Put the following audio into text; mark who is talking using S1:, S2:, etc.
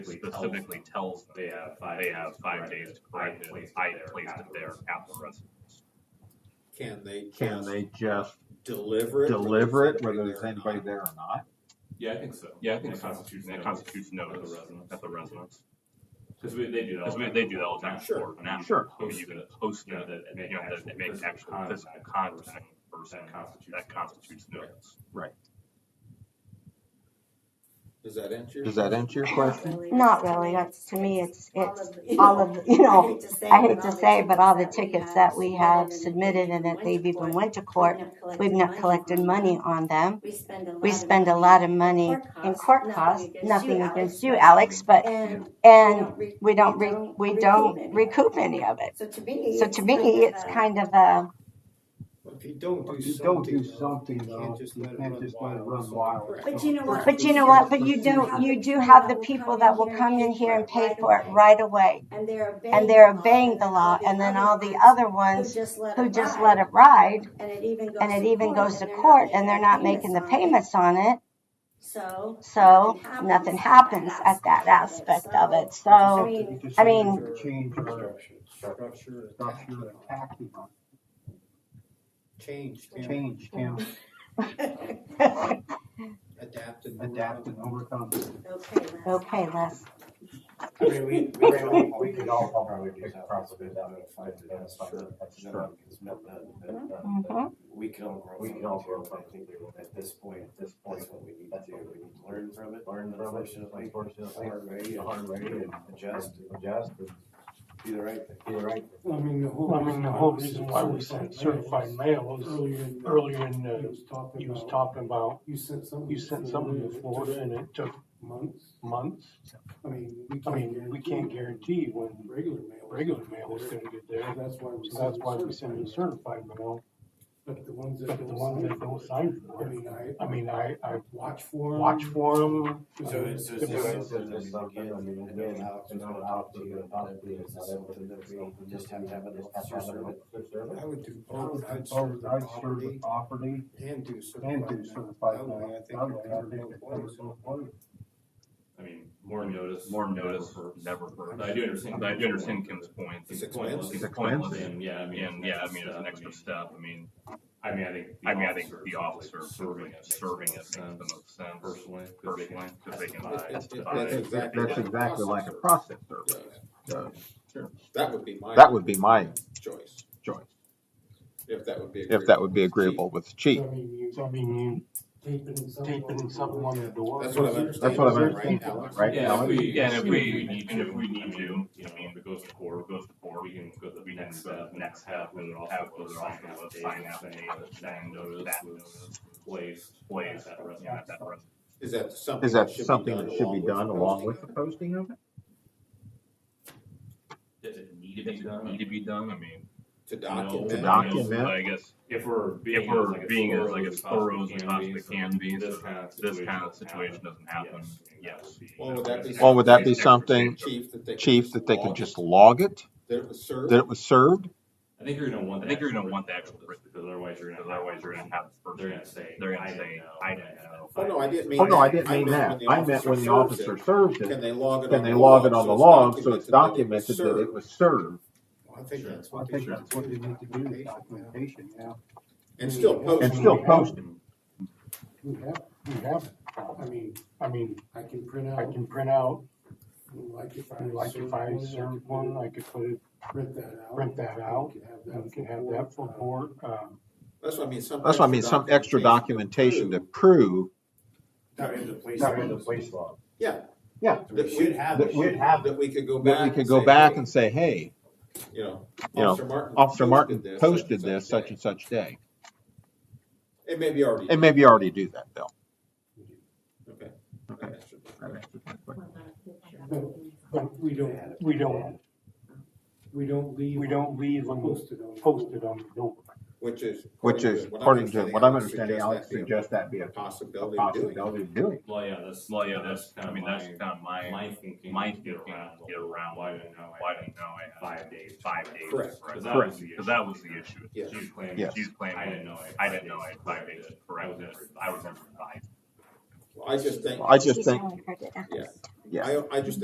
S1: specifically tells them they have five days to correct it. I placed it there at the residence.
S2: Can they
S3: Can they just
S2: deliver it?
S3: deliver it whether there's anybody there or not?
S4: Yeah, I think so.
S1: Yeah, I think
S4: that
S1: so.
S4: constitutes
S1: That
S4: notice
S1: constitutes
S4: at
S1: notice
S4: the residence.
S1: at the residence.
S4: Because we, they do that.
S1: Because
S4: all
S1: we-
S4: the
S1: they
S4: time.
S1: do that all the time
S2: Sure.
S1: for now.
S3: Sure.
S1: I mean, you can post it, that, you know, that it makes actual physical contact versus
S4: That constitutes
S1: that constitutes notice.
S2: Does that answer? your
S3: Does that
S2: question?
S3: answer your question?
S5: Not really, that's, to me, it's, it's all
S6: all
S5: of,
S6: of
S5: the- you know, I hate to say, but all the tickets that we have submitted and that they've even went to court, we've not collected money on them. We spend a lot of money in court costs, nothing against you, Alex, but,
S6: And
S5: and we don't,
S6: we
S5: re-
S6: don't
S5: we
S6: recoup
S5: don't
S6: any.
S5: recoup any of it.
S6: So to me.
S5: So to me, it's uh, kind of a,
S2: If you don't do
S7: If you don't
S2: something.
S7: do something,
S2: you can't
S7: though,
S2: just
S7: you
S2: let it
S7: can't
S2: run
S7: just let it
S2: wild.
S7: run wild.
S2: Correct.
S6: But you know what?
S5: but you know what, but you don't, you do have the people that will come in here and pay for it right away.
S6: And they're obeying.
S5: And they're obeying the law, and then all the other
S6: ones
S5: ones
S6: Who just let it
S5: who just
S6: ride.
S5: let it ride,
S6: And it even goes.
S5: and it
S6: to
S5: even
S6: court,
S5: goes to
S6: they're not
S5: court,
S6: making
S5: and they're not making the
S6: on it.
S5: payments on it,
S6: So.
S5: so nothing happens at that aspect of it, so.
S6: I mean-
S7: Just
S5: I mean-
S7: to Change our
S2: Structure,
S7: structure of taxi box.
S2: change, can
S7: change, can
S2: adapt and. move
S7: adapt and
S2: on.
S7: overcome.
S6: Okay. Les.
S8: I
S5: Okay, Les,
S8: mean, we, we, ran all- we could all probably do that, probably down to five to that, five to that.
S5: Mhm.
S8: We can all grow. We can all grow. I think we will, at this point, at this point, what we need to do, we need to learn from it, learn unfortunately, the hard way, the hard way, and adjust, and adjust, and do the right thing. Do the right
S9: I mean, the whole.
S7: Well, I mean, the whole reason why we sent certified mail is
S9: Earlier in.
S7: earlier in the-
S9: he was talking
S7: he was
S9: about-
S7: talking about,
S9: You sent some.
S7: you sent something to Florida and it took
S9: Months,
S7: months.
S9: I mean, we
S7: I
S9: can't.
S7: mean, we can't guarantee when
S9: Regular mail.
S7: regular mail is gonna get there.
S9: That's why we.
S7: So that's why we
S9: send
S7: send
S9: them
S7: them
S9: certified.
S7: certified mail,
S9: But the ones that.
S7: but the
S9: don't
S7: ones that don't sign
S9: I
S7: for it.
S9: mean, I,
S7: I mean, I, I
S9: watch for 'em.
S7: watch for them.
S8: thing. So it's, so it's just something, I mean, again, it's not out to you, not to you, it's not something that we just have to have it, just have to have it.
S9: I would do both, I'd
S7: I'd serve
S9: serve the
S7: the
S9: property
S7: property
S2: And do
S7: and
S2: certified.
S7: do
S2: mail.
S7: certified
S2: That way, I
S7: mail.
S2: think.
S7: That
S2: it
S7: way, I
S2: covers
S7: think it
S2: both ways.
S7: covers both ways.
S4: I mean, more notice.
S1: More notice, never
S4: But
S1: heard.
S4: I do understand.
S1: But I do understand Kim's point.
S2: It's
S4: pointless.
S2: expensive.
S3: It's expensive.
S4: And, yeah, I mean.
S1: And yeah, I mean, it's an extra step. I mean,
S4: I mean, I think.
S1: I mean, I think the officer serving it, serving it makes the most sense
S4: Personally. 'cause they can
S1: personally, because they can
S2: It- it- it-
S1: testify.
S2: That's exactly.
S3: That's
S2: like a
S3: exactly like a
S2: processor.
S3: process server. So
S2: That would be my.
S3: That would be my
S2: Choice,
S3: choice,
S2: if that would be.
S3: if that would be agreeable with the chief.
S9: I mean, you
S7: So I mean,
S9: taping
S7: you
S9: something.
S7: taping something on the door.
S2: That's what I'm understanding.
S3: That's what I'm
S2: right,
S3: understanding,
S2: Alex?
S3: right?
S4: Yeah, if we,
S1: Yeah, and if we,
S4: need
S1: and if we
S4: I
S1: need
S4: mean,
S1: to,
S4: you know,
S1: I mean,
S4: if it goes to court,
S1: or goes to court,
S4: we can go to the
S1: next
S4: next
S1: step,
S4: step,
S1: next step, and we'll have those on the sign out date, that notice, that notice,
S4: placed.
S1: place, that
S4: at that
S1: rest,
S4: restaurant.
S1: at that rest.
S2: Is that something?
S3: Is that
S2: should be
S3: something
S2: done
S3: that should be done
S2: the
S3: along
S2: posting of
S3: with the
S2: it?
S3: posting of it?
S1: Does it need to be done? Need to be done, I mean.
S2: To
S1: no,
S2: document.
S3: To
S1: I guess-
S3: document.
S1: I guess,
S4: If we're
S1: if
S4: being.
S1: we're being as like as thorough as we
S4: be,
S1: possibly
S4: so
S1: can be, so
S4: This kind of.
S1: this
S4: situation
S1: kind of
S4: doesn't
S1: situation
S4: happen.
S1: doesn't happen, yes.
S4: Yes.
S2: Well, would that be-
S3: Or would that be something,
S2: Chief, that they. could
S3: chief,
S2: just
S3: that they
S2: log
S3: could
S2: it,
S3: just log it,
S2: That it was served.
S3: that it was served?
S4: I think you're gonna want.
S1: I
S4: the
S1: think you're
S4: actual
S1: gonna want the
S4: written
S1: actual
S4: notice, Because otherwise you're gonna.
S1: Because otherwise you're gonna have the
S4: They're
S1: person,
S4: gonna say.
S1: they're gonna
S4: didn't
S1: say,
S4: know,
S1: "I didn't know."
S2: Oh, no, I didn't mean.
S3: Oh, no, I
S2: that.
S3: didn't mean that.
S2: when the
S3: I meant when the
S2: officer serves
S3: officer
S2: it.
S3: serves
S2: Can
S3: it,
S2: they log it on
S3: can
S2: the log?
S3: they log it on
S2: so
S3: the
S2: it's
S3: log, so it's
S2: documented
S3: documented that
S2: was
S3: it was served?
S2: served? I think that's
S7: I
S2: what they
S7: think
S2: should
S7: that's what
S2: do.
S7: they need to do, is documentation, yeah.
S2: And still post.
S3: And still post it.
S9: We have,
S7: We have, it.
S9: I mean,
S7: I mean,
S9: I can print out.
S7: I can print out,
S9: Like if I.
S7: like if I served one, I could put it,
S9: Print that out.
S7: print that out,
S9: We could have
S7: and
S9: that.
S7: we can have that for court, um,
S2: That's what I mean, some.
S3: That's what I mean, some extra documentation to prove
S8: Not in the place.
S7: Not in the
S8: place law.
S2: Yeah.
S3: Yeah.
S2: That
S8: We should have.
S3: That we-
S2: have. That we could go back.
S3: that we could
S2: and
S3: go
S2: say,
S3: back
S2: hey,
S3: and say, hey,
S2: You know.
S3: you know,
S2: Officer Martin
S3: Officer Martin
S2: this, such and
S3: posted this such
S2: day."
S3: and such day.
S2: It may be already.
S3: And maybe you already do that, Bill.
S2: Okay.
S3: Okay.
S2: That should be-
S9: But we don't,
S7: we don't,
S9: we don't leave.
S7: we don't leave them
S9: Posted on.
S7: posted on the door.
S2: Which is.
S3: Which is, according to what I'm understanding, Alex suggests that be a a
S2: Possibility of doing. it.
S3: possibility of doing. it.
S4: Well, yeah, that's.
S1: Well, yeah, that's, I mean, that's
S4: kinda
S1: kind of
S4: my,
S1: my,
S4: my thinking.
S1: my
S4: Get
S1: thinking,
S4: around.
S1: get around,
S4: Why didn't know?
S1: why didn't know I had
S4: Five days.
S1: Five days.
S2: Correct.
S1: Because
S4: Cause that was the issue.
S1: that was the issue.
S2: Yeah.
S4: She's claiming.
S3: Yes.
S1: She's claiming,
S4: I didn't know I had
S1: I
S4: five
S1: didn't know
S4: days
S1: I had
S4: to
S1: five
S4: correct
S1: days to
S4: it. I
S1: correct
S4: was
S1: it.
S4: never-
S1: I was never five.
S2: I just think,
S3: I just
S5: She's
S3: think,
S5: only heard it a
S2: Yeah.
S5: hundred times.
S3: yeah.
S2: I, I just